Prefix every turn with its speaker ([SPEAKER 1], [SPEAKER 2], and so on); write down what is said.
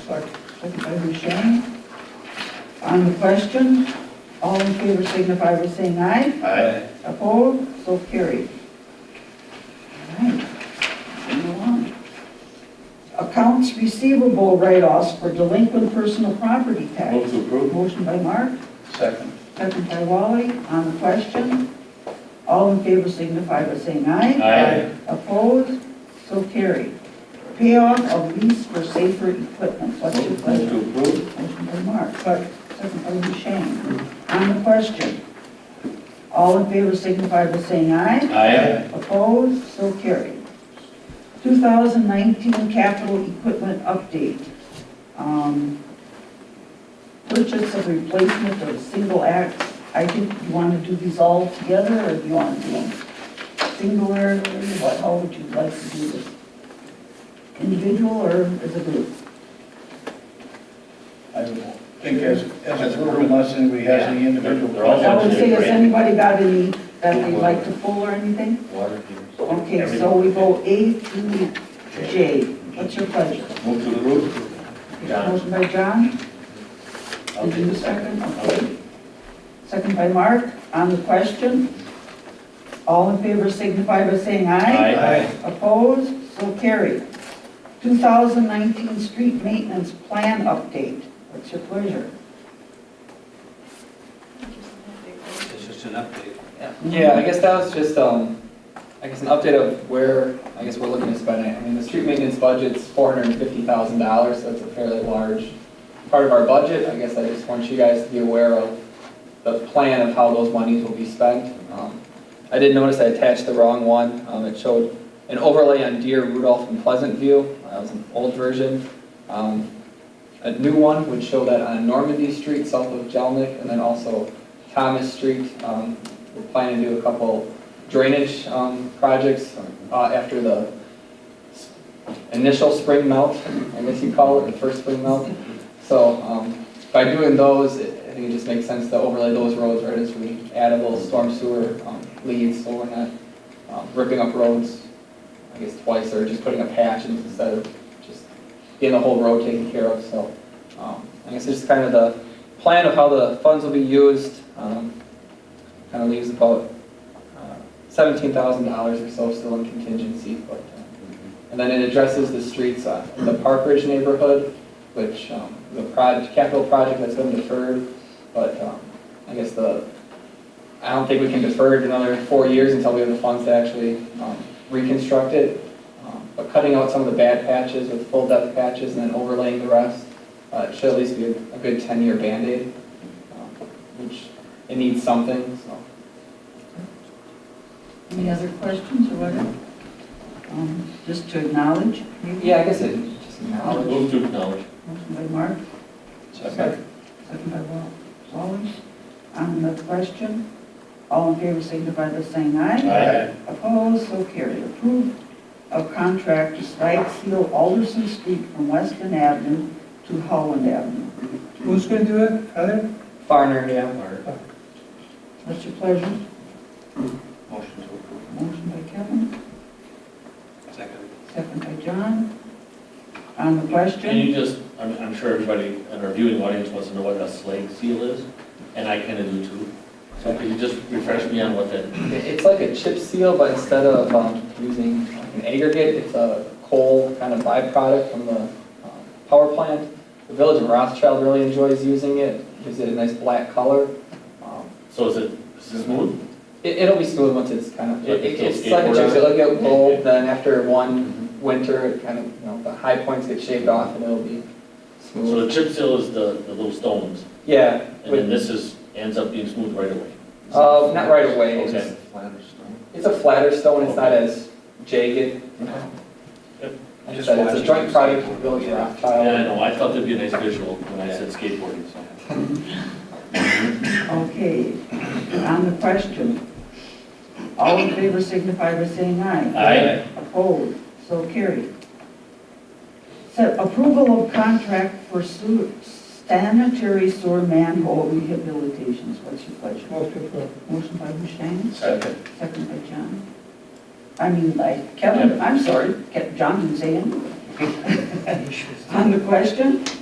[SPEAKER 1] Second. Second by Bouchon. On the question, all in favor signify by saying aye.
[SPEAKER 2] Aye.
[SPEAKER 1] Opposed, so carried. All right, moving along. Accounts receivable write-offs for delinquent personal property tax.
[SPEAKER 2] Move to approve.
[SPEAKER 1] Motion by Mark,
[SPEAKER 2] Second.
[SPEAKER 1] second by Wally. On the question, all in favor signify by saying aye.
[SPEAKER 2] Aye.
[SPEAKER 1] Opposed, so carried. Payoff of lease for safer equipment. What's your
[SPEAKER 2] Move move
[SPEAKER 1] pleasure?
[SPEAKER 2] to approve.
[SPEAKER 1] Motion by Mark, second by Duchesne. On the question, all in favor signify by saying aye.
[SPEAKER 2] Aye.
[SPEAKER 1] Opposed, so carried. 2019 capital equipment update. Um, Purchase of replacement of single axe. I think you want to do these all together, or do you want to do them singular? What, how would you like to do this? Individual or as a group?
[SPEAKER 3] I would think as, as a group, unless anybody has any individual.
[SPEAKER 2] They're all-
[SPEAKER 1] I would say, has anybody got any that they'd like to pull or anything?
[SPEAKER 2] Water heaters.
[SPEAKER 1] Okay, so we go A through J. What's your pleasure?
[SPEAKER 2] Move to approve. John.
[SPEAKER 1] Motion by John,
[SPEAKER 2] I'll
[SPEAKER 1] is
[SPEAKER 2] do
[SPEAKER 1] you
[SPEAKER 2] the second.
[SPEAKER 1] second? Okay. Second by Mark, on the question. All in favor signify by saying aye.
[SPEAKER 2] Aye.
[SPEAKER 1] Opposed, so carried. 2019 street maintenance plan update. What's your pleasure?
[SPEAKER 4] It's just an update.
[SPEAKER 5] Yeah, I guess that was just, um, I guess an update of where, I guess we're looking to spend it. I mean, the street maintenance budget's four hundred and fifty thousand dollars, so it's a fairly large part of our budget. I guess I just want you guys to be aware of the plan of how those monies will be spent. Um, I did notice I attached the wrong one. Um, it showed an overlay on Deer, Rudolph, and Pleasant View. Uh, That was an old version. Um, a new one would show that on Normandy Street, south of Jelnik, and then also Thomas Street. Um, We're planning to do a couple drainage um, projects uh, after the s- initial spring melt, I guess you call it, the first spring melt. So um, by doing those, it- I think it just makes sense to overlay those roads right as we add a little storm sewer um, lead, so we're not um, ripping up roads, I guess twice, or just putting up patches instead of just getting the whole road taken care of, so. um, I guess it's just kind of the plan of how the funds will be used, um, kind of leaves about uh, $17,000 or so still in contingency, but, uh, and then it addresses the streets uh, in the Park Ridge neighborhood, which, um, the project, capital project that's been deferred, but um, I guess the, I don't think we can defer it another four years until we have the funds to actually um, reconstruct it. Um, But cutting out some of the bad patches with full depth patches and then overlaying the rest, uh, it should at least be a a good 10-year Band-Aid, um, which it needs something, so.
[SPEAKER 1] Any other questions or whatever? Um, Just to acknowledge, maybe?
[SPEAKER 5] Yeah, I guess it, just knowledge.
[SPEAKER 2] Move to acknowledge.
[SPEAKER 1] Motion by Mark,
[SPEAKER 2] Second.
[SPEAKER 1] Second by Wa- Wallace. On the question, all in favor signify by saying aye.
[SPEAKER 2] Aye.
[SPEAKER 1] Opposed, so carried. Approved of contract to slide seal Alderson Street from Weston Avenue to Holland Avenue.
[SPEAKER 3] Who's gonna do it, Heather?
[SPEAKER 5] Farner, yeah.
[SPEAKER 1] What's your pleasure?
[SPEAKER 2] Motion to approve.
[SPEAKER 1] Motion by Kevin,
[SPEAKER 4] Second.
[SPEAKER 1] second by John. On the
[SPEAKER 6] Can
[SPEAKER 1] question,
[SPEAKER 6] you just, I'm, I'm sure everybody in our viewing audience wants to know what a slag seal is, and I kind of do too. So could you just refresh me on what that,
[SPEAKER 5] It's like a chip seal, but instead of um, using like an aggregate, it's a coal kind of byproduct from the um, power plant. The village of Rothschild really enjoys using it, gives it a nice black color. Um,
[SPEAKER 6] so is it is it smooth?
[SPEAKER 5] It, it'll be smooth once it's kind of,
[SPEAKER 6] Like
[SPEAKER 5] it-
[SPEAKER 6] a little
[SPEAKER 5] it's like a
[SPEAKER 6] skateboard
[SPEAKER 5] chip
[SPEAKER 6] on
[SPEAKER 5] seal,
[SPEAKER 6] it?
[SPEAKER 5] it'll get
[SPEAKER 6] Yeah,
[SPEAKER 5] gold,
[SPEAKER 6] yeah.
[SPEAKER 5] then after one winter, it kind of, you know, the high points get shaved off and it'll be
[SPEAKER 6] So
[SPEAKER 5] smooth.
[SPEAKER 6] the chip seal is the, the little stones,
[SPEAKER 5] Yeah,
[SPEAKER 6] and then
[SPEAKER 5] with-
[SPEAKER 6] this is, ends up being smooth right away.
[SPEAKER 5] uh, not right away, it's
[SPEAKER 6] Okay.
[SPEAKER 5] just- It's a flatter stone, it's not as
[SPEAKER 6] Yep.
[SPEAKER 5] jagged. Like I said, it's a joint product with Village Rock Tile.
[SPEAKER 6] Yeah, I know, I thought that'd be a nice visual when I said skateboarding, so.
[SPEAKER 1] okay, on the question, all in favor signify by saying aye.
[SPEAKER 6] Aye.
[SPEAKER 1] Opposed, so carried. Set approval of contract for sewer- sanitary sewer manhole rehabilitations, what's your pleasure?
[SPEAKER 3] Motion for.
[SPEAKER 1] Motion by Hushain,
[SPEAKER 2] Second.
[SPEAKER 1] second by John. I mean, by Kevin, I'm sorry, Ke- John didn't say anything. On the question,